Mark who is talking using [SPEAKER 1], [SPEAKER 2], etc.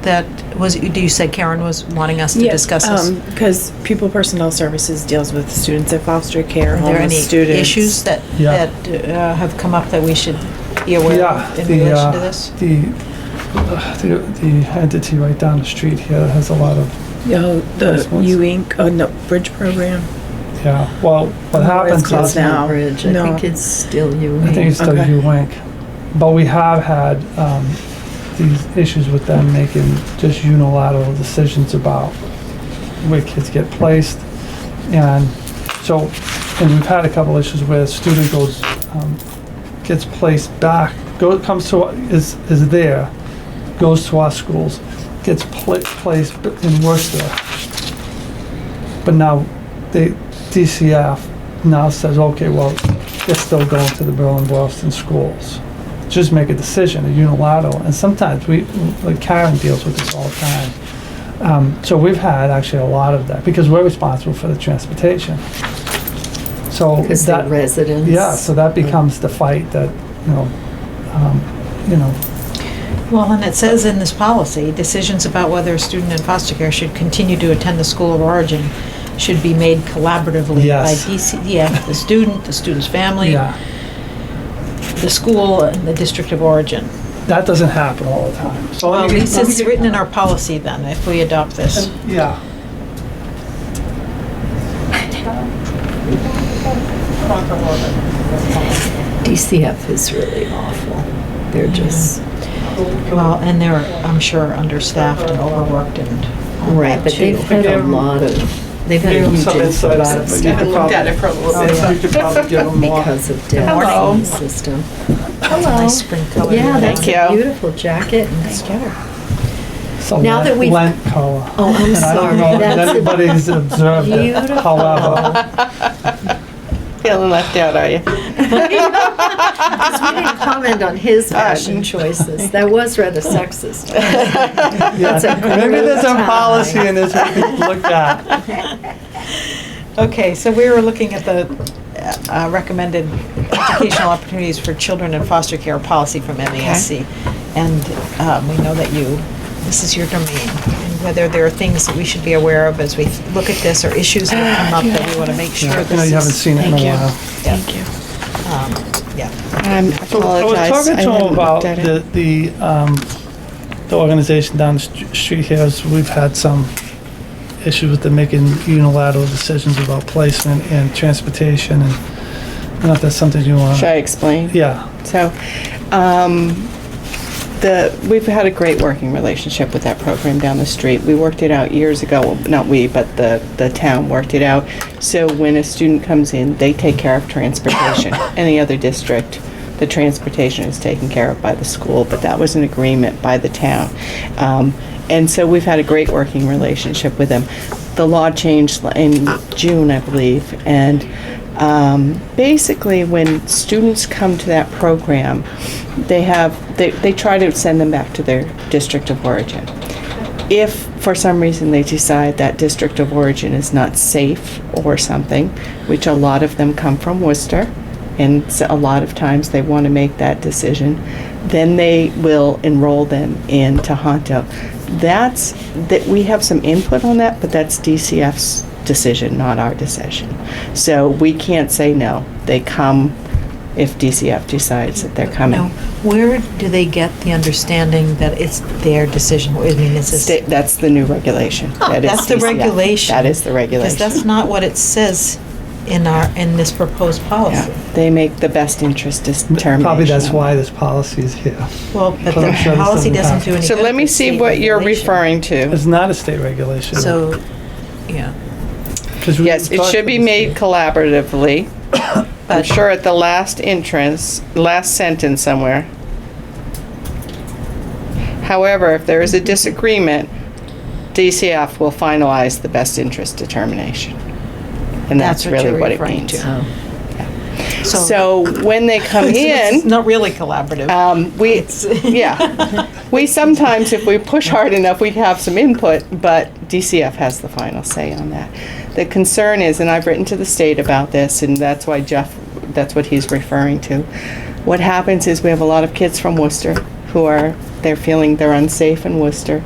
[SPEAKER 1] that was, do you say Karen was wanting us to discuss
[SPEAKER 2] um,
[SPEAKER 1] this?
[SPEAKER 2] Because Pupil Personnel Services deals with students at foster care,
[SPEAKER 1] Are there any
[SPEAKER 2] homeless students.
[SPEAKER 1] issues that,
[SPEAKER 3] Yeah.
[SPEAKER 1] that uh, have come up that we should be aware
[SPEAKER 3] Yeah,
[SPEAKER 1] of in
[SPEAKER 3] the,
[SPEAKER 1] relation to
[SPEAKER 3] uh,
[SPEAKER 1] this?
[SPEAKER 3] the, uh, the, the entity right down the street here that has a lot of,
[SPEAKER 2] Oh,
[SPEAKER 3] Those
[SPEAKER 2] the
[SPEAKER 3] ones?
[SPEAKER 2] U Inc., oh, no, Bridge Program.
[SPEAKER 3] yeah, well, what happens
[SPEAKER 2] called
[SPEAKER 3] is,
[SPEAKER 2] now.
[SPEAKER 4] Not Bridge, I
[SPEAKER 2] No.
[SPEAKER 4] think it's still you.
[SPEAKER 3] I think it's still
[SPEAKER 2] Okay.
[SPEAKER 3] U-Wink, but we have had, um, these issues with them making just unilateral decisions about where kids get placed, and so, and we've had a couple issues where a student goes, um, gets placed back, go, comes to, is, is there, goes to our schools, gets pla- placed in Worcester. But now, the DCF now says, okay, well, they're still going to the Berlin Boylston schools. Just make a decision, a unilateral, and sometimes we, like Karen deals with this all the time. Um, so we've had actually a lot of that, because we're responsible for the transportation. So
[SPEAKER 4] Because they're
[SPEAKER 3] that,
[SPEAKER 4] residents.
[SPEAKER 3] yeah, so that becomes the fight that, you know, um, you know,
[SPEAKER 1] Well, and it says in this policy, decisions about whether a student in foster care should continue to attend the school of origin should be made collaboratively by
[SPEAKER 3] Yes.
[SPEAKER 1] DCEF, the student, the student's family,
[SPEAKER 3] yeah,
[SPEAKER 1] the school, and the district of origin.
[SPEAKER 3] that doesn't happen all the time. So
[SPEAKER 1] Well,
[SPEAKER 3] let
[SPEAKER 1] at
[SPEAKER 3] me-
[SPEAKER 1] least
[SPEAKER 3] let me Um,
[SPEAKER 1] it's
[SPEAKER 3] give-
[SPEAKER 1] written in our policy then, if we adopt this.
[SPEAKER 3] Yeah.
[SPEAKER 4] DCF is really awful. They're just,
[SPEAKER 1] Well, and they're, I'm sure, understaffed and overworked and,
[SPEAKER 4] right, but they've had a lot of, they've had
[SPEAKER 3] Give
[SPEAKER 4] a
[SPEAKER 3] them
[SPEAKER 4] huge
[SPEAKER 3] some insight
[SPEAKER 4] influx
[SPEAKER 3] on it,
[SPEAKER 4] of
[SPEAKER 3] but you
[SPEAKER 4] staff
[SPEAKER 3] could probably, uh,
[SPEAKER 5] for a little
[SPEAKER 3] you could probably give them more.
[SPEAKER 4] because of debt in the system.
[SPEAKER 1] nice spring color.
[SPEAKER 4] Yeah, that's
[SPEAKER 5] Thank
[SPEAKER 4] a
[SPEAKER 5] you.
[SPEAKER 4] beautiful jacket and sweater.
[SPEAKER 3] It's a
[SPEAKER 4] now
[SPEAKER 3] lent-
[SPEAKER 4] that we've-
[SPEAKER 3] Lent color.
[SPEAKER 4] Oh, I'm
[SPEAKER 3] And I don't
[SPEAKER 4] sorry,
[SPEAKER 3] know if
[SPEAKER 4] that's a
[SPEAKER 3] anybody's observed it,
[SPEAKER 4] beautiful-
[SPEAKER 3] however,
[SPEAKER 5] Feeling left out, are you?
[SPEAKER 3] Um,
[SPEAKER 4] Because we didn't comment on his fashion choices. That was rather sexist.
[SPEAKER 3] yeah,
[SPEAKER 4] That's a
[SPEAKER 3] maybe there's a
[SPEAKER 4] great
[SPEAKER 3] policy
[SPEAKER 4] tie.
[SPEAKER 3] in this we could look at.
[SPEAKER 1] Okay, so we were looking at the uh, recommended educational opportunities for children in foster care policy from MASC. And um, we know that you, this is your domain, and whether there are things that we should be aware of as we look at this, or issues that come up that we want to make sure
[SPEAKER 3] I
[SPEAKER 1] this
[SPEAKER 3] know you haven't
[SPEAKER 1] is-
[SPEAKER 3] seen it in
[SPEAKER 5] Thank you.
[SPEAKER 3] a while.
[SPEAKER 1] Yeah.
[SPEAKER 5] Thank you.
[SPEAKER 1] um, Yeah.
[SPEAKER 5] Um, I
[SPEAKER 3] I was
[SPEAKER 5] apologize.
[SPEAKER 3] talking
[SPEAKER 5] I
[SPEAKER 3] to
[SPEAKER 5] hadn't
[SPEAKER 3] him about
[SPEAKER 5] looked at it.
[SPEAKER 3] the, the, um, the organization down the st- street here, is we've had some issues with them making unilateral decisions about placement and transportation, and not that's something you want.
[SPEAKER 5] Should I explain?
[SPEAKER 3] Yeah,
[SPEAKER 5] So, um, the, we've had a great working relationship with that program down the street. We worked it out years ago, well, not we, but the, the town worked it out. So when a student comes in, they take care of transportation. Any other district, the transportation is taken care of by the school, but that was an agreement by the town. Um, and so we've had a great working relationship with them. The law changed in June, I believe, and um, basically when students come to that program they have they, they try to send them back to their district of origin if for some reason they decide that district of origin is not safe or something which a lot of them come from worcester and s- a lot of times they want to make that decision then they will enroll them in Tohonto. That's, that, we have some input on that, but that's DCF's decision, not our decision. So we can't say no. They come if DCF decides that they're
[SPEAKER 1] Now,
[SPEAKER 5] coming.
[SPEAKER 1] where do they get the understanding that it's their decision? I mean, is this?
[SPEAKER 5] Sta- That's the new regulation. That is
[SPEAKER 1] Oh, That's the
[SPEAKER 5] DCF.
[SPEAKER 1] regulation.
[SPEAKER 5] That is the
[SPEAKER 1] Because
[SPEAKER 5] regulation.
[SPEAKER 1] that's not what it says in our, in this proposed
[SPEAKER 5] Yeah.
[SPEAKER 1] policy.
[SPEAKER 5] They make the best interest determination.
[SPEAKER 3] probably that's
[SPEAKER 5] on
[SPEAKER 3] why
[SPEAKER 5] that.
[SPEAKER 3] this policy is here.
[SPEAKER 1] Well, but
[SPEAKER 3] Well, I'm sure
[SPEAKER 1] the
[SPEAKER 3] this
[SPEAKER 1] policy
[SPEAKER 3] doesn't
[SPEAKER 1] doesn't do any
[SPEAKER 5] So
[SPEAKER 1] good
[SPEAKER 5] let me
[SPEAKER 1] with
[SPEAKER 5] see
[SPEAKER 1] state
[SPEAKER 5] what you're
[SPEAKER 1] regulation.
[SPEAKER 5] referring to.
[SPEAKER 3] It's not a state regulation.
[SPEAKER 1] So, yeah,
[SPEAKER 3] 'Cause we-
[SPEAKER 5] Yes, it should be made collaboratively. I'm
[SPEAKER 1] But-
[SPEAKER 5] sure at the last entrance, last sentence somewhere. However, if there is a disagreement, DCF will finalize the best interest determination. And
[SPEAKER 1] That's
[SPEAKER 5] that's
[SPEAKER 1] what
[SPEAKER 5] really
[SPEAKER 1] you're
[SPEAKER 5] what it
[SPEAKER 1] referring
[SPEAKER 5] means.
[SPEAKER 1] to. Oh. so.
[SPEAKER 5] Oh. So when they come
[SPEAKER 1] It's
[SPEAKER 5] in,
[SPEAKER 1] not really collaborative.
[SPEAKER 5] um, we, yeah. We sometimes, if we push hard enough, we have some input, but DCF has the final say on that. The concern is, and I've written to the state about this, and that's why Jeff, that's what he's referring to. What happens is we have a lot of kids from Worcester who are, they're feeling they're unsafe in Worcester.